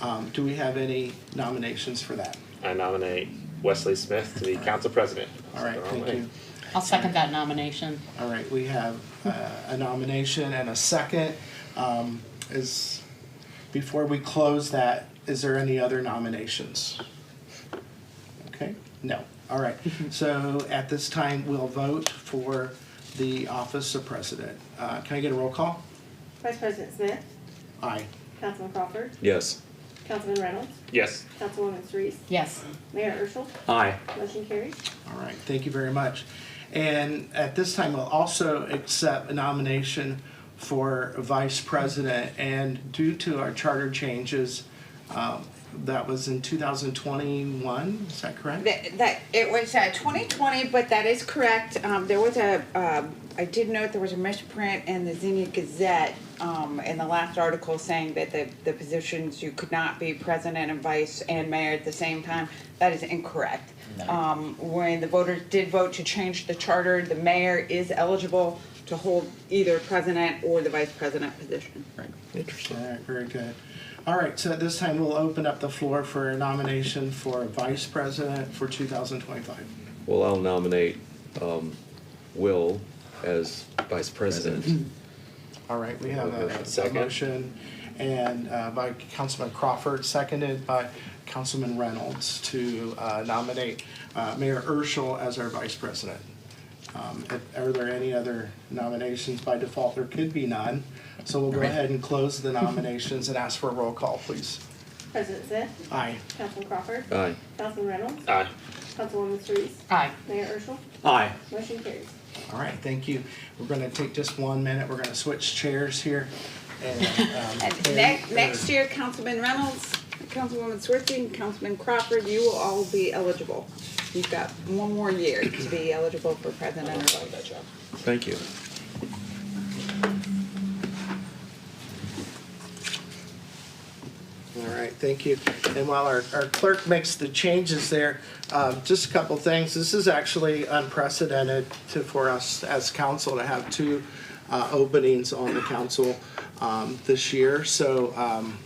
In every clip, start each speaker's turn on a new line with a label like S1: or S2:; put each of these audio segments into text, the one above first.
S1: Um, do we have any nominations for that?
S2: I nominate Wesley Smith to be council president.
S1: All right,
S2: Wrong
S1: thank
S2: way.
S1: you.
S3: I'll second that nomination.
S1: All right, we have uh, a nomination and a second. Um, Is, before we close that, is there any other nominations? Okay, no. All right, so at this time, we'll vote for the office of president. Uh, Can I get a roll call?
S4: Vice President Smith,
S1: Aye.
S4: Councilman Crawford,
S5: Yes.
S4: Councilman Reynolds,
S2: Yes.
S4: Councilwoman Surrice,
S3: Yes,
S4: Mayor Urschel,
S2: Aye.
S4: motion carries.
S1: All right, thank you very much. And at this time, we'll also accept a nomination for vice president. And due to our charter changes, um, that was in 2021, is that correct?
S6: That, that it was uh, 2020, but that is correct. Um, there was a um, I did note there was a misprint in the Xenia Gazette um, in the last article saying that the, the positions you could not be president and vice and mayor at the same time. That is incorrect. Um, when the voters did vote to change the charter, the mayor is eligible to hold either president or the vice president position.
S1: All right, very good. All right, so at this time, we'll open up the floor for a nomination for vice president for 2025.
S5: Well, I'll nominate um, Will as vice president.
S1: All right, we have a- a
S2: Second.
S1: motion and uh, by Councilman Crawford, seconded by Councilman Reynolds to uh, nominate uh, Mayor Urschel as our vice president. Um, if- Are there any other nominations? By default, there could be none. So we'll go ahead and close the nominations and ask for a roll call, please.
S4: President Smith,
S1: Aye.
S4: Councilman Crawford,
S5: Aye.
S4: Councilman Reynolds,
S2: Aye.
S4: Councilwoman Surrice,
S3: aye.
S4: Mayor Urschel,
S2: Aye.
S4: motion carries.
S1: All right, thank you. We're going to take just one minute. We're going to switch chairs here. And um,
S6: And next, next year, Councilman Reynolds, Councilwoman Swirsky, and Councilman Crawford, you will all be eligible. You've got one more year to be eligible for president or vice.
S5: Thank you.
S1: All right, thank you. And while our our clerk makes the changes there, um, just a couple things. This is actually unprecedented to, for us as council to have two uh, openings on the council um, this year. So um,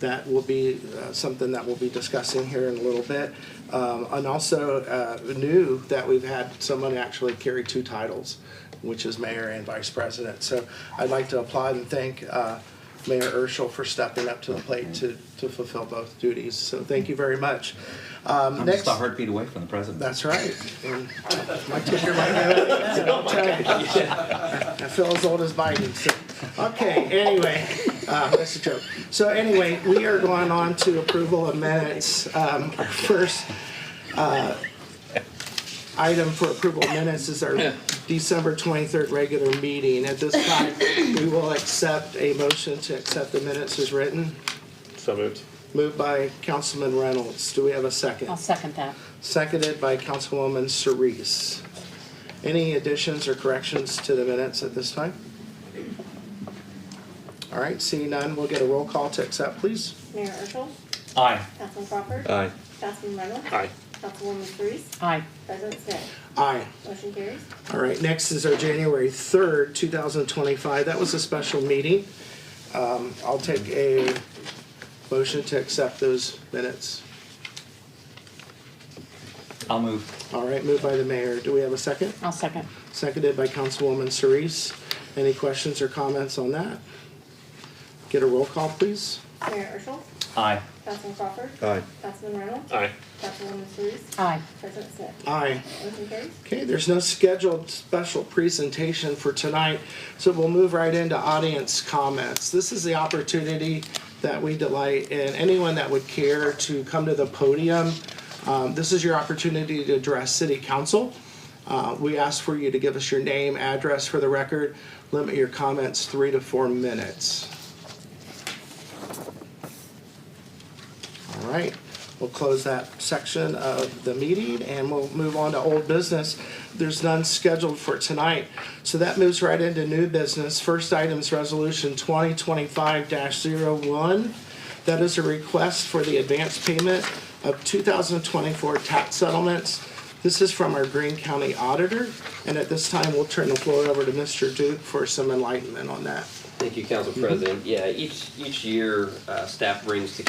S1: that will be uh, something that we'll be discussing here in a little bit. Um, And also uh, new that we've had someone actually carry two titles, which is mayor and vice president. So I'd like to applaud and thank uh, Mayor Urschel for stepping up to the plate to to fulfill both duties. So thank you very much. Um,
S7: I'm
S1: Next,
S7: just a heartbeat away from the president.
S1: That's right. And My ticker might have it. I'll tell you. I feel as old as Biden. so- Okay, anyway, uh, that's a joke. So anyway, we are going on to approval of minutes. Um, Our first uh, item for approval of minutes is our December 23rd regular meeting. At this time, we will accept a motion to accept the minutes as written,
S2: So moved.
S1: moved by Councilman Reynolds. Do we have a 2nd
S3: I'll second that.
S1: Seconded by Councilwoman Cerise. Any additions or corrections to the minutes at this time? All right, seeing none, we'll get a roll call to accept, please.
S4: Mayor Urschel,
S7: Aye.
S4: Councilman Crawford,
S5: Aye.
S4: Councilman Reynolds,
S2: Aye.
S4: Councilwoman Surrice,
S3: Aye,
S4: President Smith,
S1: Aye.
S4: motion carries.
S1: All right, next is our January 3rd, 2025. That was a special meeting. Um, I'll take a motion to accept those minutes.
S7: I'll move.
S1: All right, moved by the mayor. Do we have a second?
S3: I'll second.
S1: Seconded by Councilwoman Cerise. Any questions or comments on that? Get a roll call, please.
S4: Mayor Urschel,
S7: Aye.
S4: Councilman Crawford,
S5: Aye.
S4: Councilman Reynolds,
S2: Aye.
S4: Councilwoman Surrice,
S3: Aye,
S4: President Smith,
S1: Aye.
S4: motion carries.
S1: Okay, there's no scheduled special presentation for tonight, so we'll move right into audience comments. This is the opportunity that we delight in. Anyone that would care to come to the podium, um, this is your opportunity to address city council. Uh, We ask for you to give us your name, address for the record, limit your comments three to four minutes. All right, we'll close that section of the meeting and we'll move on to old business. There's none scheduled for tonight, so that moves right into new business. First item is Resolution twenty twenty-five one That is a request for the advance payment of two thousand twenty-four tax settlements. This is from our Greene County Auditor, and at this time, we'll turn the floor over to Mr. Duke for some enlightenment on that.
S8: Thank you, Council President. Yeah, each, each year, uh, staff brings to